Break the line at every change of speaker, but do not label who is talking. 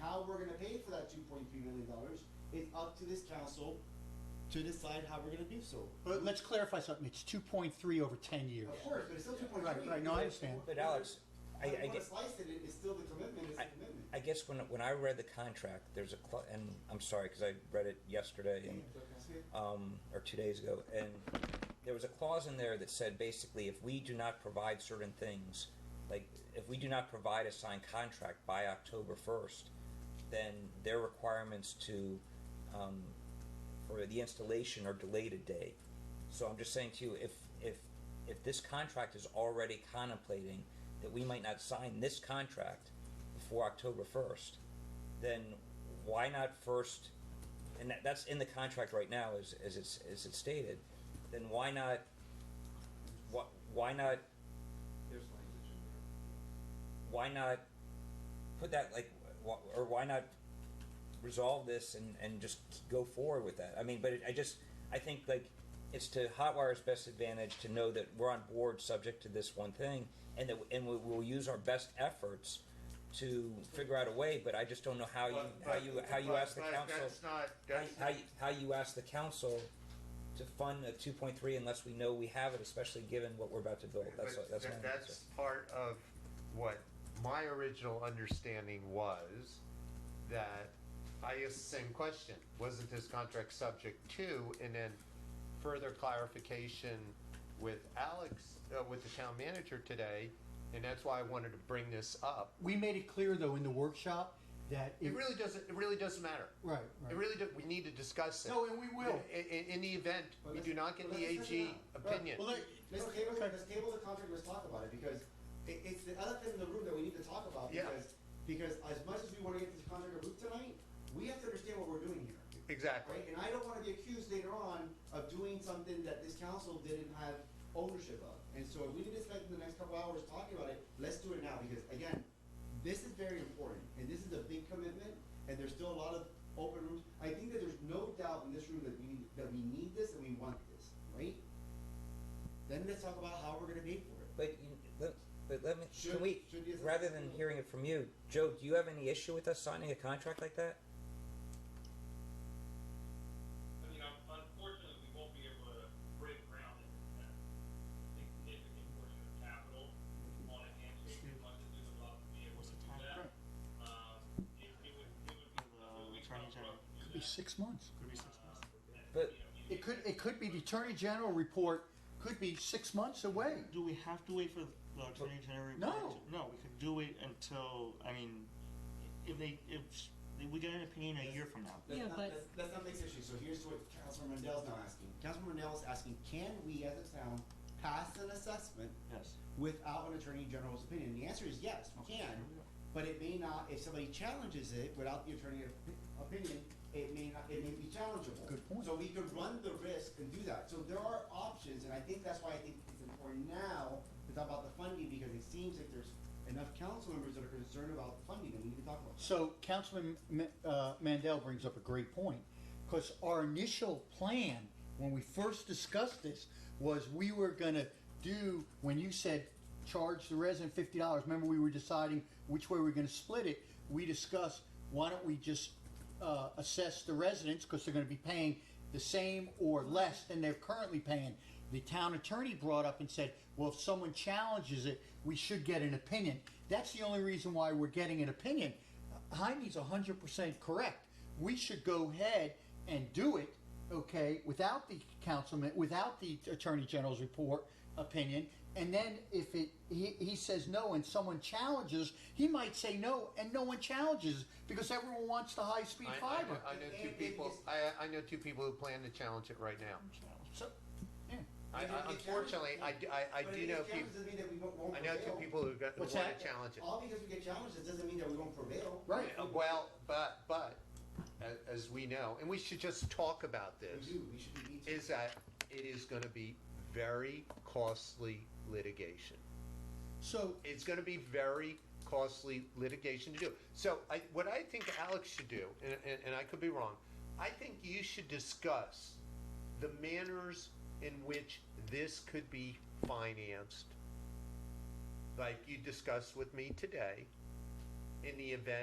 how we're gonna pay for that two point three million dollars is up to this council to decide how we're gonna do so.
But let's clarify something, it's two point three over ten years.
Of course, but it's still two point
Right,
three.
right, no, I understand.
But Alex, I, I
Whether
get,
you wanna slice it, it- it's still the commitment, it's the
I,
commitment.
I guess when, when I read the contract, there's a, cl- and I'm sorry, because I read it yesterday and, um, or two days ago, and there was a clause in there that said basically if we do not provide certain things, like if we do not provide a signed contract by October 1st, then their requirements to, um, for the installation are delayed a day. So I'm just saying to you, if, if, if this contract is already contemplating that we might not sign this contract before October 1st, then why not first, and that, that's in the contract right now as, as it's, as it's stated, then why not, why, why not,
There's language in there.
why not put that like, wh- or why not resolve this and, and just go forward with that? I mean, but it, I just, I think like, it's to Hotwire's best advantage to know that we're on board subject to this one thing and that, and we, we'll use our best efforts to figure out a way, but I just don't know how you,
But-
how
but-
you, how you
but-
ask the
but
council.
That's not,
how,
that's,
how, you, how you ask the council to fund a two point three unless we know we have it, especially given what we're about to build. oh, That's
but
that's my
that-
answer.
that's part of what my original understanding was, that I asked the same question, wasn't this contract subject to, and then further clarification with Alex, uh, with the town manager today, and that's why I wanted to bring this up.
We made it clear though in the workshop that it,
It really doesn't, it really doesn't matter.
right,
It
right.
really, do- we need to discuss it.
No, and we will.
I- i- in the event,
But
we
let's-
do not get
but
the
let's check it
AG
out. Right.
opinion.
Well, let-
Let's table, let's table the contract, let's talk about it, because it, it's the elephant in the room that we need to talk about,
Yeah.
because, because as much as we wanna get this contract approved tonight, we have to understand what we're doing here.
Exactly.
Right, and I don't wanna be accused later on of doing something that this council didn't have ownership of. And so if we need to spend the next couple hours talking about it, let's do it now, because again, this is very important, and this is a big commitment, and there's still a lot of open rooms. I think that there's no doubt in this room that we, that we need this and we want this, right? Then let's talk about how we're gonna pay for it.
But you, let, but let me,
Should-
can we,
should you-
rather than hearing it from you, Joe, do you have any issue with us signing a contract like that?
I mean, un- unfortunately, we won't be able to break ground in that significant portion of capital on a handshake, as much as we would love to be able to do that. Um, it, it would, it would be, it would be tough for us to
Could
do
be
that.
six months.
But
It could, it could be the attorney general report, could be six months away.
Do we have to wait for the attorney general? report
No.
to- No, we could do it until, I mean, if they, if, s- we get an opinion a year from now.
Let's
Yeah,
not-
but-
let's- Let's not make this issue, so here's what Councilman Rendell's now asking. Councilman Rendell is asking, can we as a town pass an assessment
Yes.
without an attorney general's opinion? The answer is yes, we can, but it may not, if somebody challenges it without the attorney op- opinion, it may not, it may be challengeable.
Good point.
So we could run the risk and do that. So there are options, and I think that's why I think it's important now to talk about the funding, because it seems like there's enough council members that are concerned about the funding, and we need to talk about it.
So Councilman Ma- uh, Mandel brings up a great point, because our initial plan, when we first discussed this, was we were gonna do, when you said charge the resident fifty dollars, remember we were deciding which way we were gonna split it, we discussed, why don't we just uh, assess the residents, because they're gonna be paying the same or less than they're currently paying. The town attorney brought up and said, well, if someone challenges it, we should get an opinion. That's the only reason why we're getting an opinion. Jaime's hundred percent correct. We should go ahead and do it, okay, without the councilman, without the attorney general's report opinion. And then if it, he, he says no and someone challenges, he might say no and no one challenges because everyone wants the high speed
I- I,
fiber.
I know two people, I, I know two people who plan to challenge it right now.
So, yeah.
I, I- unfortunately, I, do- I, I
But
do
if
know
it challenges
people,
doesn't mean that we won't- won't
I know two
prevail.
people who got, who
What's
wanna
that?
challenge it.
All because we get challenges doesn't mean that we won't prevail.
Right.
Uh, Well, but, but, as, as we know, and we should just talk about
We
this,
do, we should be. each-
is that it is gonna be very costly litigation.
So
It's gonna be very costly litigation to do. So I, what I think Alex should do, and, and, and I could be wrong, I think you should discuss the manners in which this could be financed, like you discussed with me today, in the event